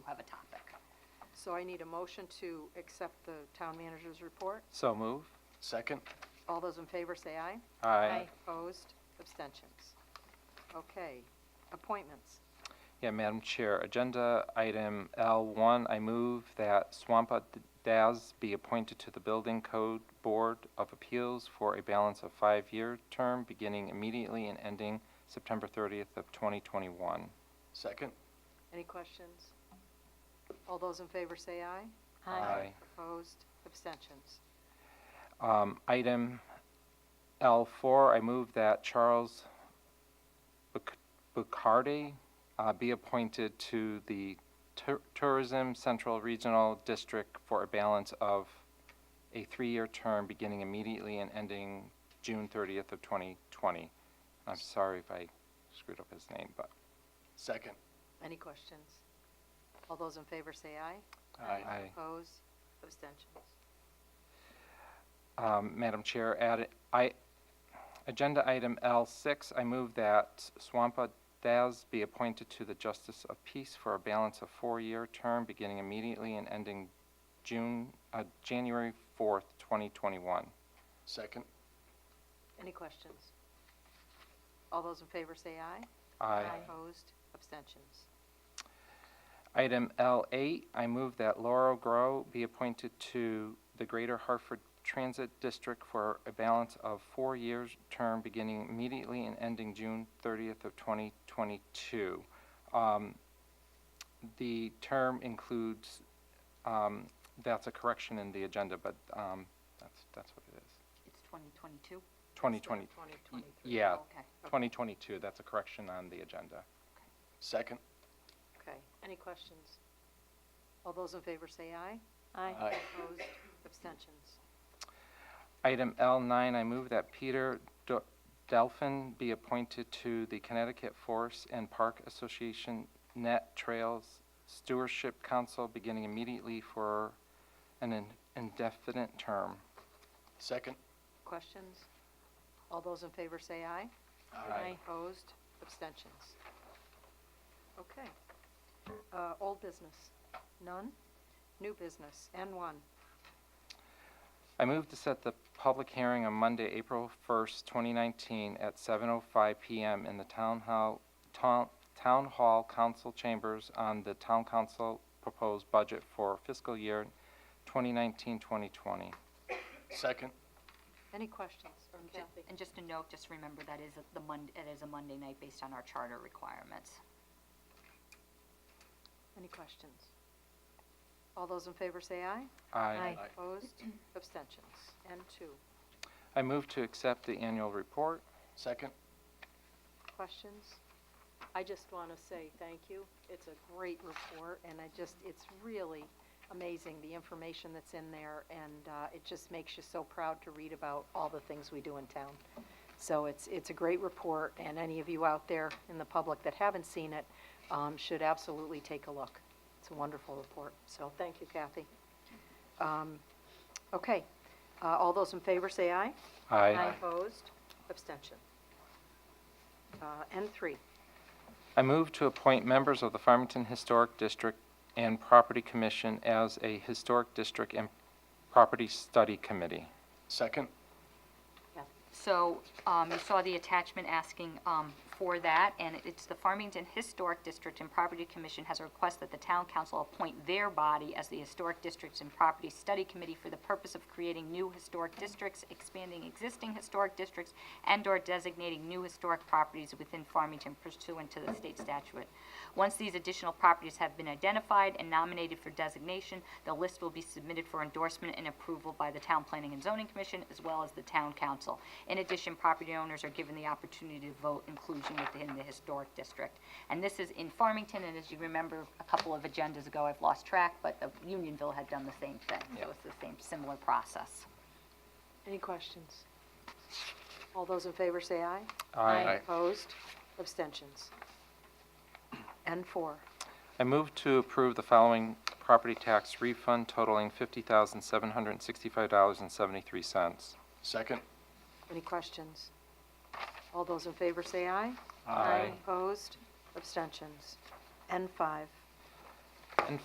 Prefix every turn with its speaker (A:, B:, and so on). A: So I need a motion to accept the town manager's report.
B: So move.
C: Second?
A: All those in favor say aye.
B: Aye.
A: Opposed, abstentions. Okay, appointments.
B: Yeah, Madam Chair, Agenda Item L1, I move that Swampa Daz be appointed to the Building Code Board of Appeals for a balance of five-year term, beginning immediately and ending September 30th of 2021.
C: Second?
A: Any questions? All those in favor say aye. Opposed, abstentions.
B: Um, Item L4, I move that Charles Buc- Bucardi uh, be appointed to the Tur- Tourism Central Regional District for a balance of a three-year term beginning immediately and ending June 30th of 2020. I'm sorry if I screwed up his name, but.
C: Second?
A: Any questions? All those in favor say aye.
B: Aye.
A: Opposed, abstentions.
B: Um, Madam Chair, add, I, agenda item L6, I move that Swampa Daz be appointed to the Justice of Peace for a balance of four-year term beginning immediately and ending June, uh, January 4th, 2021.
C: Second?
A: Any questions? All those in favor say aye.
B: Aye.
A: Opposed, abstentions.
B: Item L8, I move that Laurel Grow be appointed to the Greater Hartford Transit District for a balance of four years term beginning immediately and ending June 30th of 2022. Um, The term includes, um, that's a correction in the agenda, but um, that's, that's what it is.
D: It's 2022?
B: Twenty twenty-
A: Twenty twenty-three.
B: yeah,
D: Okay.
B: 2022, that's a correction on the agenda.
C: Second?
A: Okay, any questions? All those in favor say aye.
C: Aye.
A: Opposed, abstentions.
B: Item L9, I move that Peter D- Delphin be appointed to the Connecticut Forest and Park Association Net Trails Stewardship Council beginning immediately for an in- indefinite term.
C: Second?
A: Questions? All those in favor say aye.
D: Aye.
A: Opposed, abstentions. Okay. Uh, Old business, none. New business, N1.
B: I move to set the public hearing on Monday, April 1st, 2019, at 7:05 PM in the Town Hall, Town Town Hall Council Chambers on the Town Council proposed budget for fiscal year 2019-2020.
C: Second?
A: Any questions? Or
D: And ju-
A: Kathy?
D: And just a note, just remember that is the Monday, it is a Monday night based on our charter requirements.
A: Any questions? All those in favor say aye.
B: Aye.
C: Aye.
A: Opposed, abstentions. N2.
B: I move to accept the annual report.
C: Second?
A: questions. I just want to say thank you. It's a great report, and I just, it's really amazing, the information that's in there, and uh, it just makes you so proud to read about all the things we do in town. So it's, it's a great report, and any of you out there in the public that haven't seen it um, should absolutely take a look. It's a wonderful report, so thank you, Kathy. Um, Okay, Uh, all those in favor say aye.
B: Aye.
A: Opposed? Abstention. Uh, N3,
B: I move to appoint members of the Farmington Historic District and Property Commission as a Historic District and Property Study Committee.
C: Second?
D: So um, you saw the attachment asking um, for that, and it's the Farmington Historic District and Property Commission has a request that the town council appoint their body as the Historic Districts and Property Study Committee for the purpose of creating new historic districts, expanding existing historic districts, and/or designating new historic properties within Farmington pursuant to the state statute. Once these additional properties have been identified and nominated for designation, the list will be submitted for endorsement and approval by the Town Planning and Zoning Commission as well as the Town Council. In addition, property owners are given the opportunity to vote inclusion within the historic district. And this is in Farmington, and as you remember, a couple of agendas ago, I've lost track, but uh, Unionville had done the same thing. So it's the same, similar process.
A: any questions? All those in favor say aye.
C: Aye.
A: Opposed? Abstentions. N4,
B: I move to approve the following property tax refund totaling $50,765.73.
C: Second?
A: any questions? All those in favor say aye.
B: Aye.
A: Opposed? Abstentions. N5,